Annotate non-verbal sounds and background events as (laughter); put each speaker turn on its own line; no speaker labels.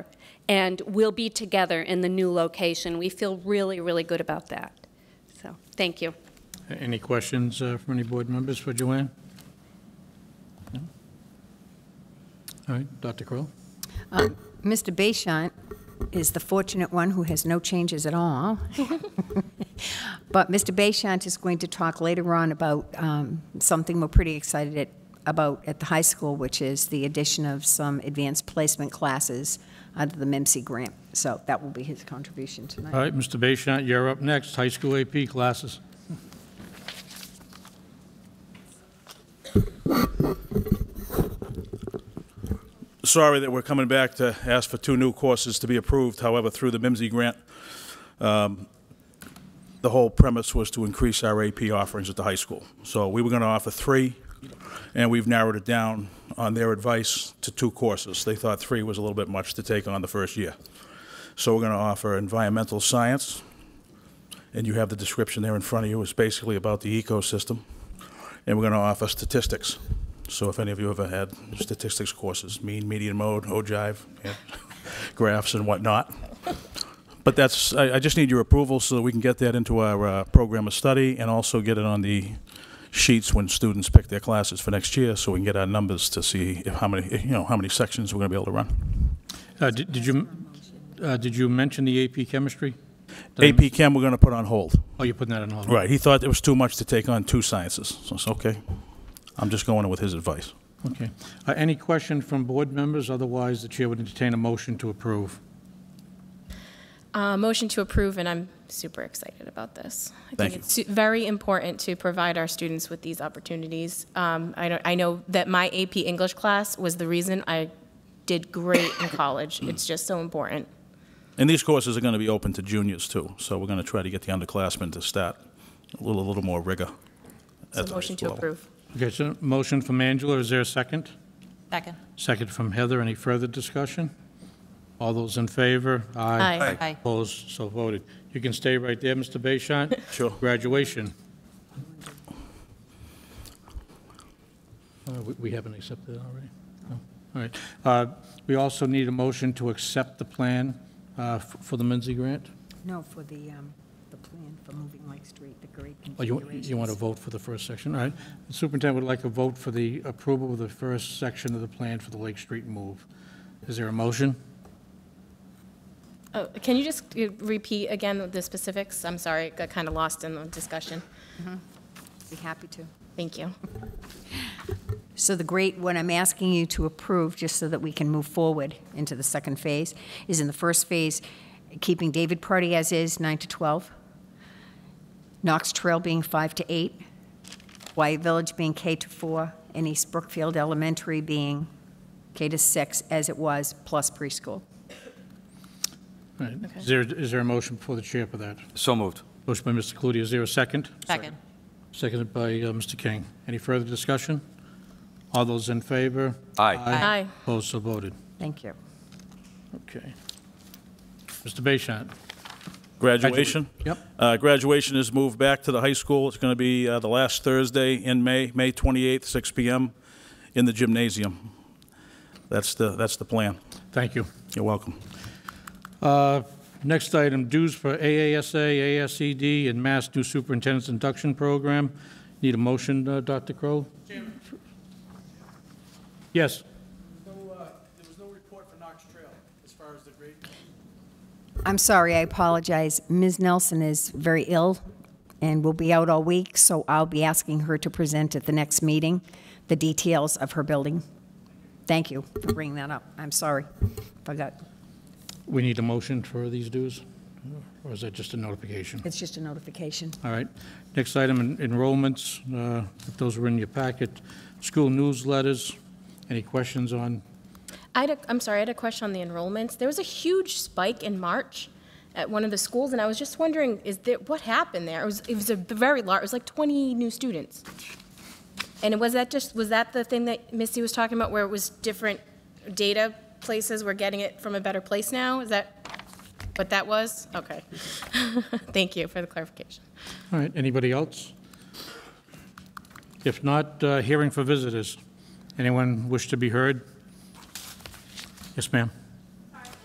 and we'll be together in the new location. We feel really, really good about that. So, thank you.
Any questions uh, from any board members for Joanne? No? All right, Dr. Crowell?
Mr. Bayshant is the fortunate one who has no changes at (laughs) all. But Mr. Bayshant is going to talk later on about um, something we're pretty excited at- about at the high school, which is the addition of some advanced placement classes under the MIMSI grant. So that will be his contribution tonight.
All right, Mr. Bayshant, you're up next, high school AP classes.
sorry that we're coming back to ask for two new courses to be approved, however, through the MIMSI grant. um, The whole premise was to increase our AP offerings at the high school. So we were going to offer three, and we've narrowed it down on their advice to two courses. They thought three was a little bit much to take on the first year. So we're going to offer environmental science, and you have the description there in front of you. It's basically about the ecosystem. And we're going to offer statistics. So if any of you ever had statistics courses, mean, median mode, ogive, and (laughs) graphs and whatnot. But that's, I, I just need your approval so that we can get that into our uh, program of study and also get it on the sheets when students pick their classes for next year so we can get our numbers to see if how many, you know, how many sections we're going to be able to run.
Uh, Did did you, uh, did you mention the AP chemistry? Did I
AP Chem, we're going to put on hold.
Oh, you're putting that on hold.
Right, he thought it was too much to take on two sciences. So it's okay. I'm just going with his advice.
Okay. Uh, Any question from board members? Otherwise, the chair would entertain a motion to approve.
Uh, motion to approve, and I'm super excited about this. I
Thank
think it's su- very important to provide our students with these opportunities. Um, I, don't, I know that my AP English class was the reason I did great in college. It's just so important.
And these courses are going to be open to juniors too, so we're going to try to get the underclassmen to start a little, a little more rigor.
So
at the
motion to
level.
approve.
Okay, so motion from Angela, is there a second?
Second.
Second from Heather, any further discussion? All those in favor?
Aye.
Aye.
Opposed, so voted. You can stay right there, Mr. Bayshant.
Sure.
Graduation. Uh, we- We haven't accepted it already? No. All right. Uh, We also need a motion to accept the plan uh, f- for the Minzy grant?
No, for the, um, the plan for moving Lake Street, the grade
Oh, you, you want to vote for the first section, all right. The Superintendent would like a vote for the approval of the first section of the plan for the Lake Street move. Is there a motion?
Oh, can you just uh, repeat again the specifics? I'm sorry, got kind of lost in the discussion.
Be happy to.
Thank you.
So the great, what I'm asking you to approve, just so that we can move forward into the second phase, is in the first phase, keeping David Party as is, 9 to 12, Knox Trail being 5 to 8, Wyatt Village being K to 4, and East Brookfield Elementary being K to 6, as it was, plus preschool.
All right. Is there, is there a motion before the chair for that?
So moved.
Motion by Mr. Cludier, is there a second?
Second.
Seconded by uh, Mr. King. Any further discussion? All those in favor?
Aye.
Aye.
Opposed, so voted.
Thank you.
Okay. Mr. Bayshant?
Graduation?
Yep.
Uh, Graduation is moved back to the high school. It's going to be uh, the last Thursday in May, May 28th, 6 PM, in the gymnasium. That's the, that's the plan.
Thank you.
You're welcome.
Uh, Next item, dues for AASA, ASED, E and Mass new Superintendent's Induction Program. Need a motion, uh, Dr. Crowe? Yes.
No, uh, there was no report for Knox Trail as far as the grade.
I'm sorry, I apologize. Ms. Nelson is very ill and will be out all week, so I'll be asking her to present at the next meeting the details of her building. Thank you for bringing that up. I'm sorry. Forgot.
We need a motion for these dues? Or is that just a notification?
It's just a notification.
All right. Next item, en- enrollments. uh, if Those were in your packet. School newsletters. Any questions on?
I had a, I'm sorry, I had a question on the enrollments. There was a huge spike in March at one of the schools, and I was just wondering, is there, what happened there? It was, it was a very large, it was like 20 new students. And was that just, was that the thing that Missy was talking about, where it was different data places, we're getting it from a better place now? Is that what that was? Okay. (laughs) Thank you for the clarification.
All right, anybody else? If not, uh, hearing for visitors. Anyone wish to be heard? Yes, ma'am.